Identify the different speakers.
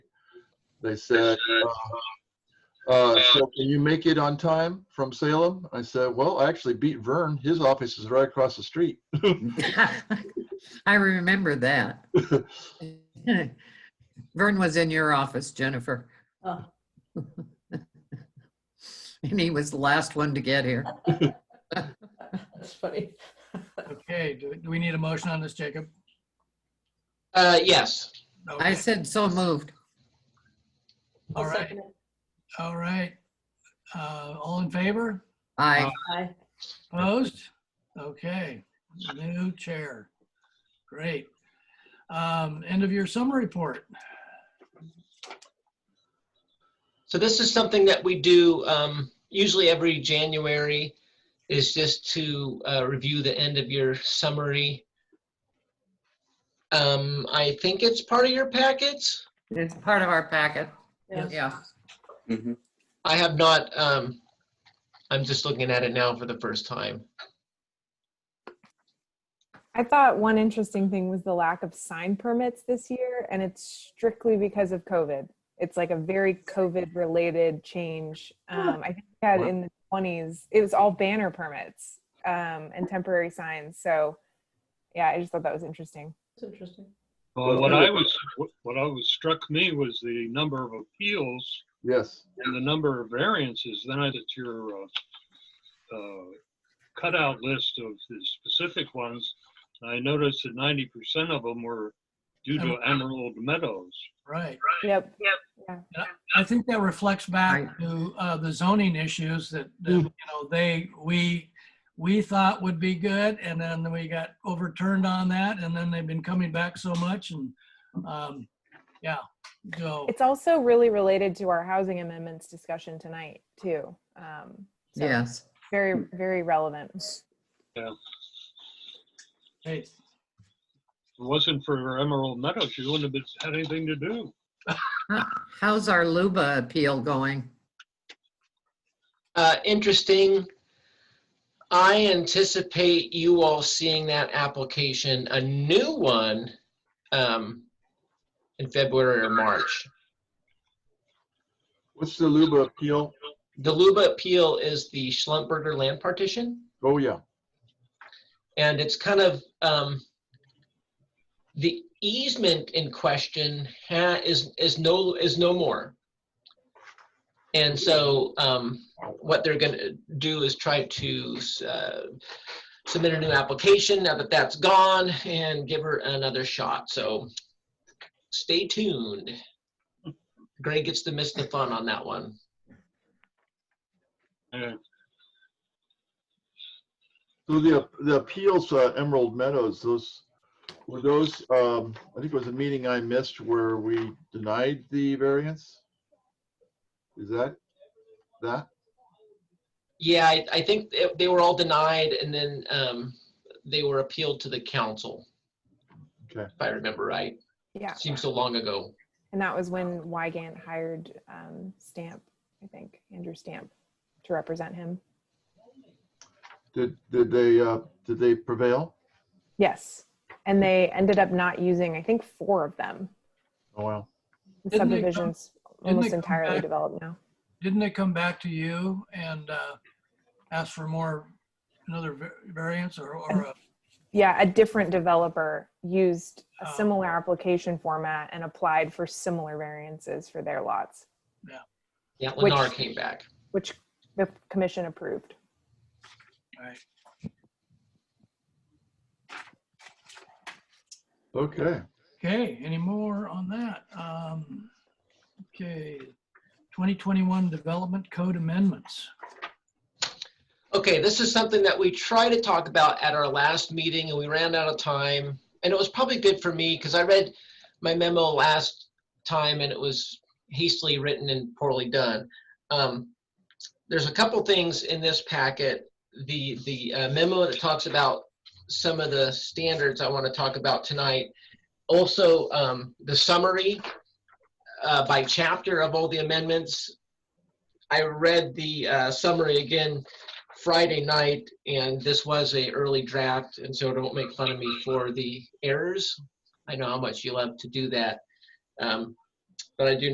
Speaker 1: They said, uh, uh, so can you make it on time from Salem? I said, well, I actually beat Vern. His office is right across the street.
Speaker 2: I remember that. Vern was in your office, Jennifer,
Speaker 3: Oh,
Speaker 2: and he was the last one to get here.
Speaker 3: that's funny.
Speaker 4: Okay, do do we need a motion on this, Jacob?
Speaker 5: Uh, yes.
Speaker 2: I
Speaker 4: Okay.
Speaker 2: said, so moved.
Speaker 4: All
Speaker 3: I'll
Speaker 4: right,
Speaker 3: second it.
Speaker 4: all right. Uh, All in favor?
Speaker 2: I,
Speaker 3: Aye.
Speaker 4: Opposed? Okay, new chair. Great. Um, End of your summer report.
Speaker 5: So this is something that we do um, usually every January is just to uh, review the end of your summary. Um, I think it's part of your packets.
Speaker 2: it's part of our packet.
Speaker 3: Yeah.
Speaker 2: Yeah,
Speaker 6: Mhm.
Speaker 5: I have not, um, I'm just looking at it now for the first time.
Speaker 7: I thought one interesting thing was the lack of sign permits this year, and it's strictly because of COVID. It's like a very COVID related change. Um, I think we had in the 20s, it was all banner permits um, and temporary signs. So, yeah, I just thought that was interesting.
Speaker 3: It's interesting.
Speaker 8: Well, what I was, what I was struck me was the number of appeals
Speaker 1: Yes.
Speaker 8: and the number of variances. Then I did your uh, uh, cutout list of the specific ones. I noticed that ninety percent of them were due to Emerald Meadows.
Speaker 4: Right.
Speaker 7: Yep.
Speaker 4: I think that reflects back to uh, the zoning issues that, that, you know, they, we, we thought would be good, and then we got overturned on that, and then they've been coming back so much, and, um, yeah, so,
Speaker 7: It's also really related to our housing amendments discussion tonight, too. Um, so
Speaker 2: yes.
Speaker 7: Very, very relevant.
Speaker 4: hey,
Speaker 8: If it wasn't for Emerald Meadows, you wouldn't have been- had anything to do.
Speaker 2: How- How's our Luba appeal going?
Speaker 5: Uh, interesting. I anticipate you all seeing that application, a new one, um, in February or March.
Speaker 1: What's the Luba appeal?
Speaker 5: The Luba appeal is the Schlumberger land partition,
Speaker 1: Oh, yeah.
Speaker 5: and it's kind of, um, the easement in question ha, is, is no, is no more. And so, um, what they're gonna do is try to, uh, submit a new application now that that's gone and give her another shot, so stay tuned. Greg gets to miss the fun on that one.
Speaker 8: And
Speaker 1: So the, the appeals, uh, Emerald Meadows, those, were those, um, I think it was a meeting I missed where we denied the variance? Is that, that?
Speaker 5: Yeah, I, I think they- they were all denied and then um, they were appealed to the council.
Speaker 1: Okay.
Speaker 5: If I remember right,
Speaker 7: Yeah.
Speaker 5: seems so long ago.
Speaker 7: And that was when Wygant hired um, Stamp, I think, Andrew Stamp, to represent him.
Speaker 1: Did, did they, uh, did they prevail?
Speaker 7: Yes. And they ended up not using, I think, four of them.
Speaker 1: Oh, wow.
Speaker 7: The
Speaker 4: Didn't they come-
Speaker 7: subdivision's
Speaker 4: they
Speaker 7: almost
Speaker 4: come
Speaker 7: entirely
Speaker 4: back-
Speaker 7: developed now.
Speaker 4: didn't they come back to you and uh, ask for more, another va- variance or, or, a-
Speaker 7: Yeah, a different developer used a
Speaker 4: Oh.
Speaker 7: similar application format and applied for similar variances for their lots,
Speaker 5: Yeah,
Speaker 7: Which-
Speaker 5: Lennar came back.
Speaker 7: which the commission approved.
Speaker 1: Okay.
Speaker 4: okay, any more on that? Um, Okay, 2021 Development Code Amendments.
Speaker 5: Okay, this is something that we tried to talk about at our last meeting and we ran out of time. And it was probably good for me because I read my memo last time and it was hastily written and poorly done. Um, There's a couple things in this packet. The, the uh, memo that talks about some of the standards I want to talk about tonight. Also, um, the summary uh, by chapter of all the amendments. I read the uh, summary again Friday night, and this was a early draft, and so don't make fun of me for the errors. I know how much you love to do that. Um, But I do